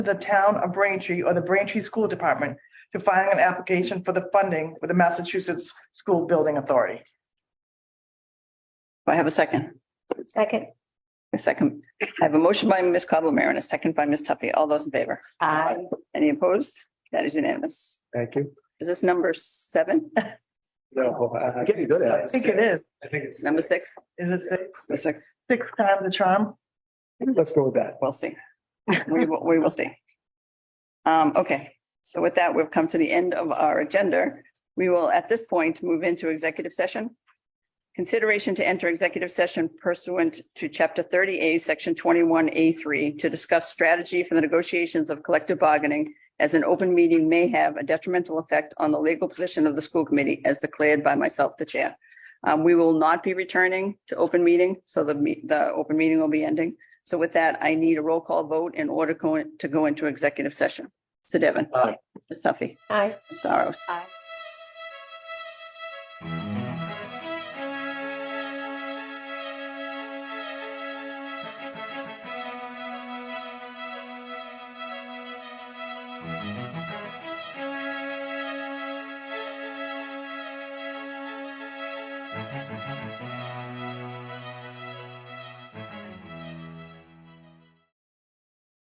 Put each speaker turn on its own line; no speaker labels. to the town of Braintree or the Braintree School Department to filing an application for the funding with the Massachusetts School Building Authority.
Do I have a second?
Second.
A second. I have a motion by Ms. Cobble-Marin and a second by Ms. Tuffy. All those in favor?
Aye.
Any opposed? That is unanimous.
Thank you.
Is this number seven?
No, I'm getting good at
I
it.
think it is.
I think it's.
Number six?
Is it six?
Number six.
Six times the charm?
Let's go with that.
We'll see. We will, we will see. Um, okay, so with that, we've come to the end of our agenda. We will, at this point, move into executive session. Consideration to enter executive session pursuant to chapter thirty A, section twenty-one A three, to discuss strategy for the negotiations of collective bargaining as an open meeting may have a detrimental effect on the legal position of the school committee as declared by myself, the chair. Um, we will not be returning to open meeting, so the, me- the open meeting will be ending. So with that, I need a roll call vote in order go- to go into executive session. So Devon.
Aye.
Ms. Tuffy.
Aye.
Ms. Saros.
Aye.